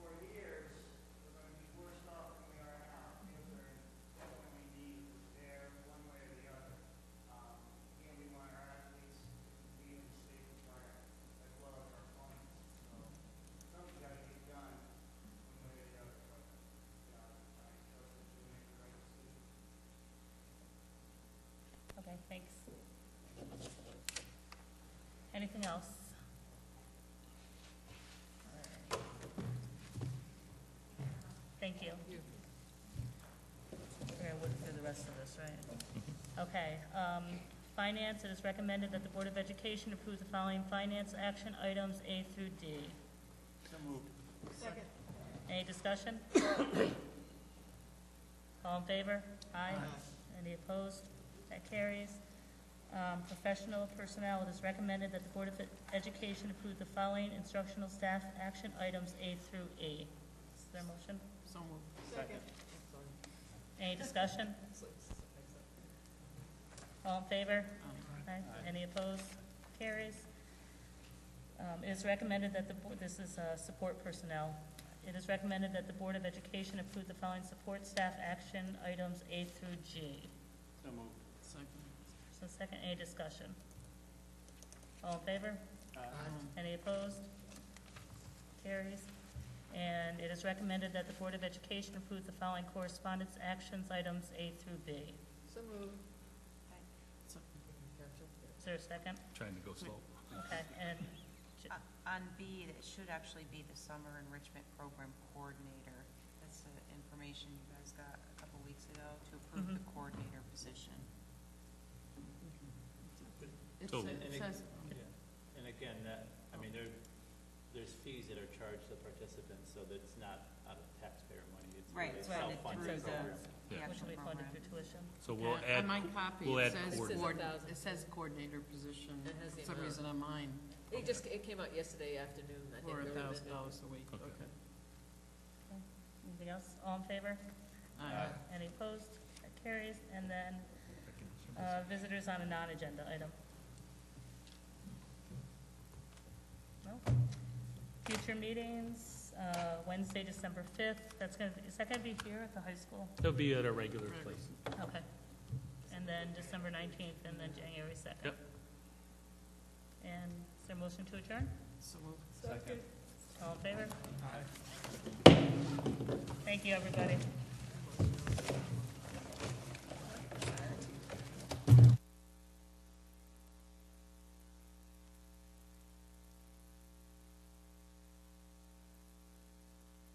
anything else? Thank you. We're gonna work through the rest of this, right? Okay, um, finance, it is recommended that the Board of Education approve the following finance action items A through D. Second. Any discussion? All in favor? Aye. Any opposed? That carries. Um, Professional personnel, it is recommended that the Board of Education approve the following instructional staff action items A through E. Is there a motion? So moved. Second. Any discussion? All in favor? Aye. Any opposed? Carries. Um, It is recommended that the, board- this is uh, support personnel. It is recommended that the Board of Education approve the following support staff action items A through G. So moved. Second. So second, any discussion? All in favor? Uh, Um, Aye. Any opposed? Carries. And it is recommended that the Board of Education approve the following correspondence actions items A through B. So moved. So- Is there a second? Trying to go slow. Okay, and Uh, On B, it should actually be the summer enrichment program coordinator. That's the information you guys got a couple weeks ago to approve the coordinator position. It So- sa- And it it- says, Yeah, and again, that, I mean, there, there's fees that are charged to participants, so that's not out of taxpayer money, it's Right, really it's funded self-funded through the- program. The Yeah. which actual will be funded program. through tuition. So we'll yeah, add, uh, on my copy, we'll it add says, coordinator. This is coord- a thousand. it says coordinator position. It has the For some amount. reason on mine, It just, it came out yesterday afternoon, I think. for a there was thousand dollars a week, Okay. okay. Anything else? All in favor? Aye. Any opposed? That carries. And then uh, visitors on a non-agenda item. No. Future meetings, uh, Wednesday, December 5th. That's going to, is that going to be here at the high school? it'll be at a regular place. Okay. And then December 19th and then January 2nd. Yep. And is there a motion to adjourn? So moved. Second. All in favor? Thank you, everybody.